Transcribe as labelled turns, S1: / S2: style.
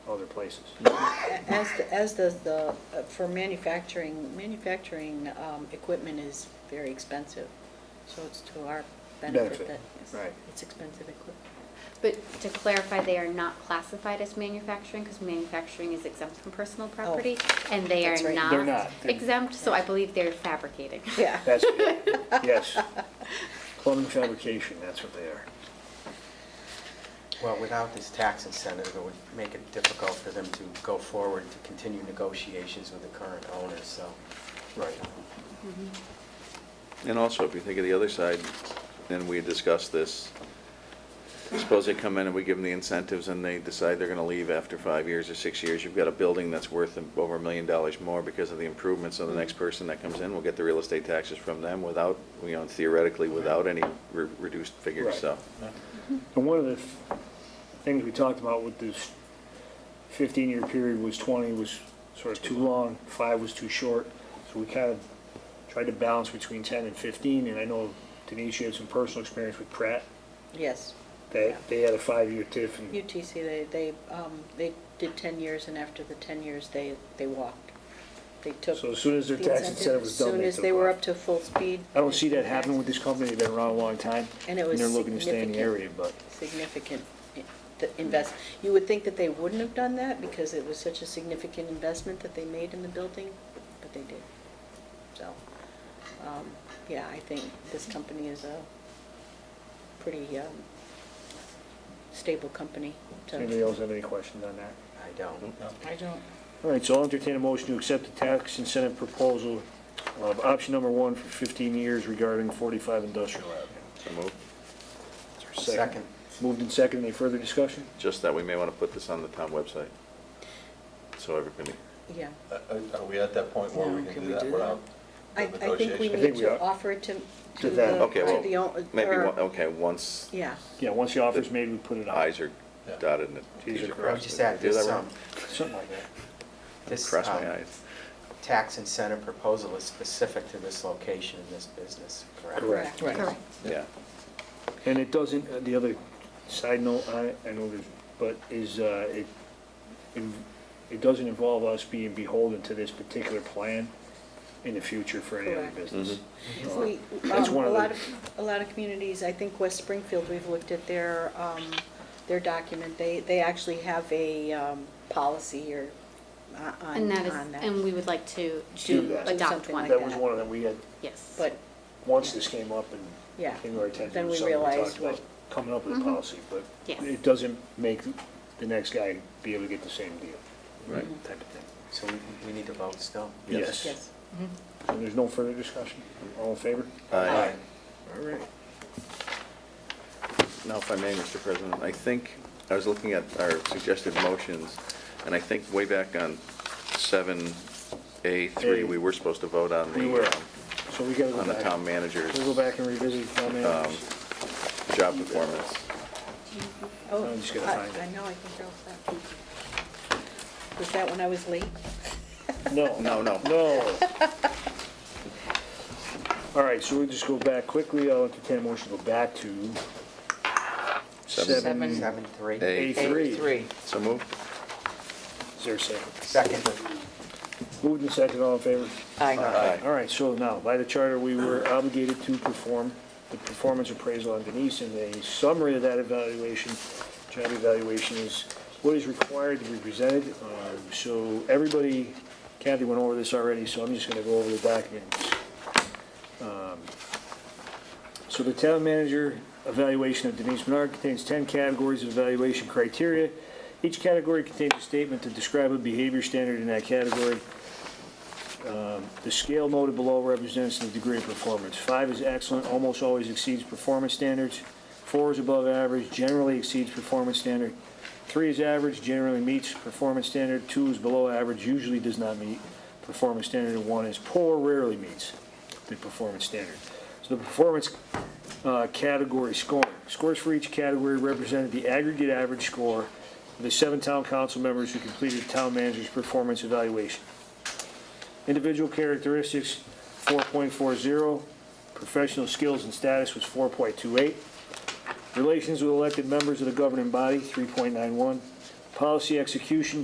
S1: other places.
S2: Mm-hmm. As, the- as does the, uh, for manufacturing, manufacturing um, equipment is very expensive, so it's to our benefit
S1: Benefit,
S2: that, yes,
S1: right.
S2: it's expensive equipment.
S3: But to clarify, they are not classified as manufacturing because manufacturing is exempt from personal property, and they
S2: Oh, that's
S3: are
S2: right.
S1: They're not.
S3: not
S1: They're-
S3: exempt, so I believe they're fabricating.
S2: Yeah.
S1: That's, yes. Plumbing fabrication, that's what they are.
S4: Well, without this tax incentive, it would make it difficult for them to go forward to continue negotiations with the current owners, so.
S1: Right.
S5: And also, if you think of the other side, then we discuss this. Suppose they come in and we give them the incentives and they decide they're gonna leave after five years or six years. You've got a building that's worth over a million dollars more because of the improvements. So the next person that comes in will get the real estate taxes from them without, you know, theoretically, without any re- reduced figures, so.
S1: And one of the f- things we talked about with this 15-year period was 20 was sort of too long, five was too short. So we kind of tried to balance between 10 and 15, and I know Denise, you had some personal experience with Pratt.
S2: Yes,
S1: They,
S2: Yeah.
S1: they had a five-year TIF, and
S2: UTC, they, they, um, they did ten years, and after the ten years, they, they walked. They took.
S1: so as soon as their
S2: the
S1: tax incentive was done,
S2: As soon
S1: they
S2: as they
S1: took
S2: were
S1: off.
S2: up to full speed.
S1: I don't see that happening with this company, they've been around a long time.
S2: And it was
S1: they're looking to stay in the area,
S2: significant.
S1: but
S2: significant i- the invest, you would think that they wouldn't have done that because it was such a significant investment that they made in the building, but they did. So, um, yeah, I think this company is a pretty um, stable company.
S1: does
S2: to-
S1: anybody else have any questions on that?
S4: I don't.
S2: I don't.
S1: All right, so I'll entertain a motion to accept the tax incentive proposal of option number one for 15 years regarding 45 Industrial Avenue.
S5: So move.
S1: Is there a
S4: Second.
S1: Moved and second, any further discussion?
S5: Just that we may wanna put this on the town website. So everybody,
S2: Yeah.
S6: Uh, uh, Are we at that point where we
S2: No,
S6: can do that without the
S2: I, I think we
S6: negotiation?
S1: think
S2: need
S1: we
S2: to
S1: are.
S2: offer it to,
S1: To
S2: to
S1: them.
S2: the,
S5: okay,
S2: to the,
S5: well,
S2: own-
S5: maybe,
S2: or-
S5: one-
S6: uh,
S5: okay, once
S2: yeah.
S1: Yeah, once the offer's made, we put it out.
S5: i's are
S6: Yeah.
S5: dotted and
S1: T's
S5: t's
S1: are
S5: are
S1: crossed.
S4: I
S5: crossed.
S4: just
S5: Did I
S4: add
S5: do
S4: this,
S5: that
S4: um,
S5: wrong?
S1: Something like that.
S4: this,
S5: Cross
S4: um,
S5: my eyes.
S4: tax incentive proposal is specific to this location and this business, correct?
S1: Correct.
S2: Right.
S5: Yeah.
S1: And it doesn't, uh, the other side note, I, I know there's, but is, uh, it, it- it doesn't involve us being beholden to this particular plan in the future for any other
S2: Correct.
S1: business. So,
S2: We,
S1: that's
S2: um,
S1: one
S2: a
S1: of the-
S2: lot of, a lot of communities, I think West Springfield, we've looked at their, um, their document. They, they actually have a, um, policy here uh,
S3: And
S2: on,
S3: that is,
S2: on that.
S3: and we would like to,
S1: Do
S3: to
S1: that.
S3: adopt
S2: Something like
S3: one,
S1: That was
S2: that.
S1: one of them, we had,
S3: yes.
S2: But,
S1: once this came up and
S2: yeah,
S1: came to our attention,
S2: Then
S1: it was
S2: we
S1: something we
S2: realized
S1: talked about
S2: what-
S1: coming up with a policy, but
S3: Yes.
S1: it doesn't make the next guy be able to get the same deal.
S5: Right.
S2: Mm-hmm.
S1: Type of thing.
S4: So we, we need to vote still?
S1: Yes.
S2: yes.
S1: And there's no further discussion? All in favor?
S5: Aye.
S1: All right.
S5: Now, if I may, Mr. President, I think, I was looking at our suggested motions, and I think way back on 7A3, we were supposed to vote on
S1: We were,
S5: the, um,
S1: so we gotta go
S5: on the
S1: back.
S5: town manager's
S1: We'll go back and revisit the town
S5: um,
S1: managers.
S5: job performance.
S2: Oh,
S1: I'm just gonna
S2: I-
S1: find it.
S2: I know, I think they're all set. Was that when I was late?
S1: No.
S5: No, no.
S1: No. All right, so we'll just go back quickly. I'll entertain a motion to go back to
S5: Seven.
S1: seven,
S4: Seven, three?
S5: Eight.
S1: A3.
S5: So moved?
S1: Is there a second?
S4: Second.
S1: Moved and second, all in favor?
S5: Aye.
S1: All right, so now, by the charter, we were obligated to perform the performance appraisal on Denise, and a summary of that evaluation, job evaluation is what is required to be presented. Uh, So everybody, Kathy went over this already, so I'm just gonna go over the documents. Um, So the town manager evaluation of Denise Menard contains 10 categories of evaluation criteria. Each category contains a statement to describe a behavior standard in that category. The scale noted below represents the degree of performance. Five is excellent, almost always exceeds performance standards. Four is above average, generally exceeds performance standard. Three is average, generally meets performance standard. Two is below average, usually does not meet performance standard. And one is poor, rarely meets the performance standard. So the performance uh, category scoring. Scores for each category represented the aggregate average score of the seven town council members who completed town manager's performance evaluation. Individual characteristics, 4.40. Professional skills and status was 4.28. Relations with elected members of the governing body, 3.91. Policy execution,